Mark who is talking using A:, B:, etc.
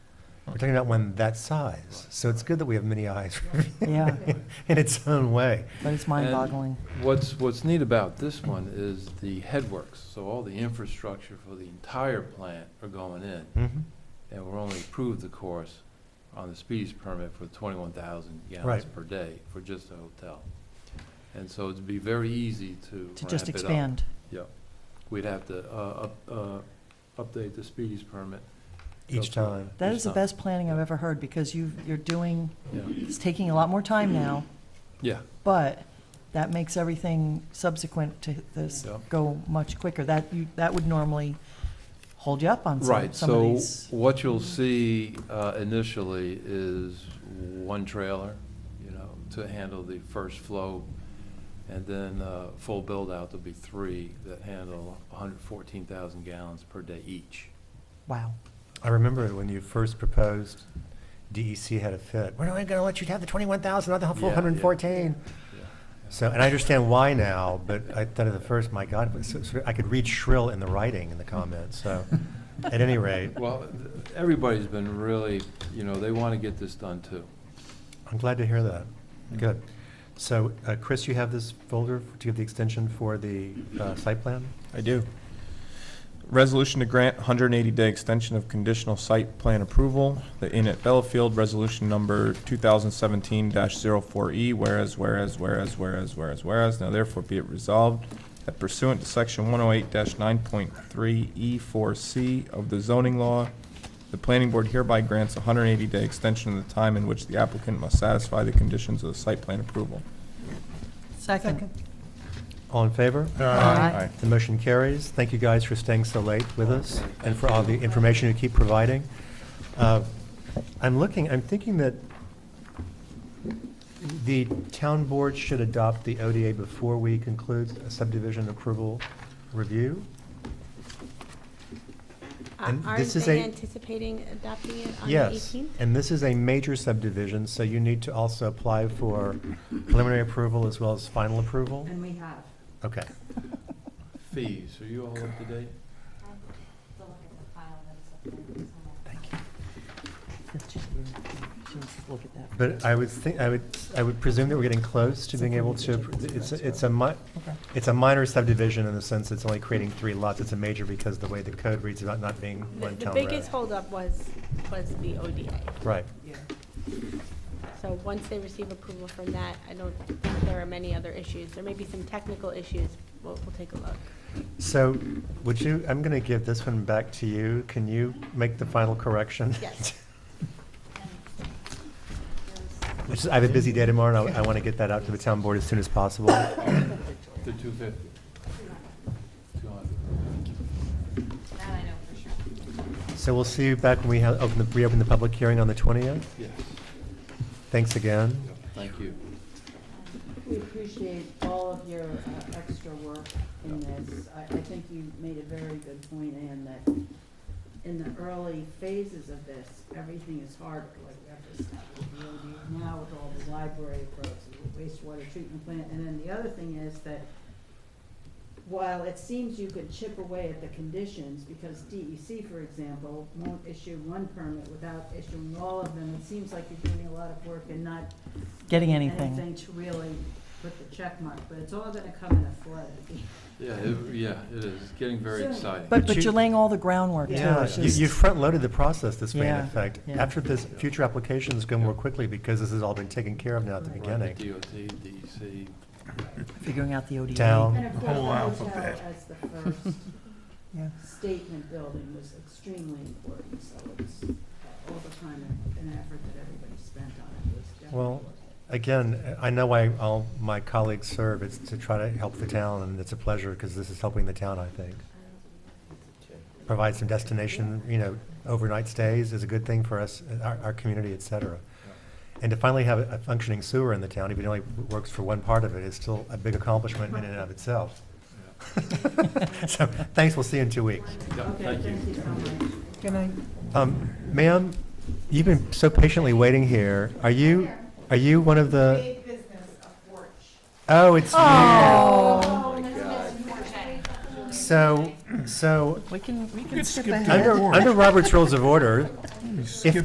A: talking about one that size. So it's good that we have many eyes
B: Yeah.
A: in its own way.
B: But it's mind-boggling.
C: And What's, what's neat about this one is the headworks, so all the infrastructure for the entire plant are going in.
A: Mhm.
C: And we're only approved, of course, on the speedies permit for twenty-one thousand gallons
A: Right.
C: per day for just the hotel. And so it'd be very easy to
B: To just
C: ramp it up.
B: expand.
C: Yeah. We'd have to, uh, up, uh, update the speedies permit.
A: Each
C: Go through
A: time.
C: it
B: That
C: each
B: is the
C: time.
B: best planning I've ever heard, because you, you're doing,
C: Yeah,
B: it's taking a lot more time now,
C: yeah,
B: but that makes everything subsequent to this
C: Yeah.
B: go much quicker. That, you, that would normally hold you up on some,
C: Right,
B: some of
C: so
B: these.
C: what you'll see uh, initially is one trailer, you know, to handle the first flow. And then uh, full build-out, there'll be three that handle 114,000 gallons per day each.
B: Wow.
A: I remember when you first proposed, DEC had a fit. We're not going to let you have the 21,000, not the
C: Yeah,
A: full
C: yeah.
A: 114.
C: Yeah.
A: So, and I understand why now, but I thought at the first, my God, but so- so I could read shrill in the writing in the comments, so at any rate,
C: Well, th- everybody's been really, you know, they want to get this done too.
A: I'm glad to hear that. Good. So, uh, Chris, you have this folder to give the extension for the uh, site plan?
D: I do. Resolution to grant 180-day extension of conditional site plan approval, the Inn at Bellafield, resolution number 2017-04E, E, whereas, whereas, whereas, whereas, whereas, whereas, now therefore be it resolved that pursuant to section 108-9.3E4C E of the zoning law, the planning board hereby grants 180-day extension of the time in which the applicant must satisfy the conditions of the site plan approval.
B: Second.
A: All in favor?
B: Aye.
A: The motion carries. Thank you guys for staying so late with us and for all the information you keep providing. Uh, I'm looking, I'm thinking that the town board should adopt the ODA before we conclude a subdivision approval review.
E: Are-
A: And
E: Aren't
A: this is
E: they
A: a-
E: anticipating adopting it on the
A: Yes,
E: 18th?
A: and this is a major subdivision, so you need to also apply for preliminary approval as well as final approval?
F: And we have.
A: Okay.
C: Fees, are you all up to date?
B: Thank you. That's just weird. She needs to look at that.
A: But I would think, I would, I would presume that we're getting close to being able to, it's, a- it's a mi-
B: Okay.
A: it's a minor subdivision in the sense it's only creating three lots. It's a major because the way the code reads about not being
E: The-
A: one
E: The
A: town road.
E: biggest holdup was, was the ODA.
A: Right.
E: So once they receive approval from that, I don't think there are many other issues. There may be some technical issues, we'll, we'll take a look.
A: So would you, I'm going to give this one back to you. Can you make the final correction?
E: Yes.
A: Which is, I have a busy day tomorrow and I, I want to get that out to the town board as soon as possible.
C: The 250? 200.
A: So we'll see you back when we have, open the, reopen the public hearing on the twentieth.
C: Yes,
A: Thanks again.
C: thank you.
F: We appreciate all of your uh, extra work in this. I, I think you made a very good point, Ann, that in the early phases of this, everything is harder. Like we have to start with the OD now with all the library approaches, the wastewater treatment plant. And then the other thing is that while it seems you could chip away at the conditions, because DEC, for example, won't issue one permit without issuing all of them, it seems like you're doing a lot of work and not
B: Getting anything.
F: to really put the check mark, but it's all gonna come in a flood.
C: Yeah, it- yeah, it is, It's getting very
F: Soon.
C: exciting.
B: But,
A: But
B: but
A: you-
B: you're laying all the groundwork too.
A: Yeah,
B: It's
A: you,
B: just-
A: you front-loaded the process this way in
B: Yeah,
A: effect.
B: yeah.
A: After this, future applications go more quickly because this has all been taken care of now at the
C: Right,
A: beginning.
C: DOT, DEC,
B: Figuring out the ODA.
A: Down.
F: And of course, the hotel as the first
B: Yeah.
F: statement building was extremely important, so it's uh, all the time and- and effort that everybody spent on it was definitely.
A: Well,
F: worth it.
A: Again, I know why all my colleagues serve, it's to try to help the town, and it's a pleasure, because this is helping the town, I think. Provide some destination, you know, overnight stays is a good thing for us, our, our community, et cetera. And to finally have a functioning sewer in the town, even though it only works for one part of it, is still a big accomplishment in and of itself. So, thanks, we'll see you in two weeks.
C: yeah,
F: Okay,
C: thank you.
F: thank you so much.
B: Good night.
A: Um, ma'am, you've been so patiently waiting here. Are you, are you one of the? Oh, it's
B: Oh.
A: you. So, so,
B: We can, we can skip
A: under,
B: ahead.
A: under Robert's Rules of Order, if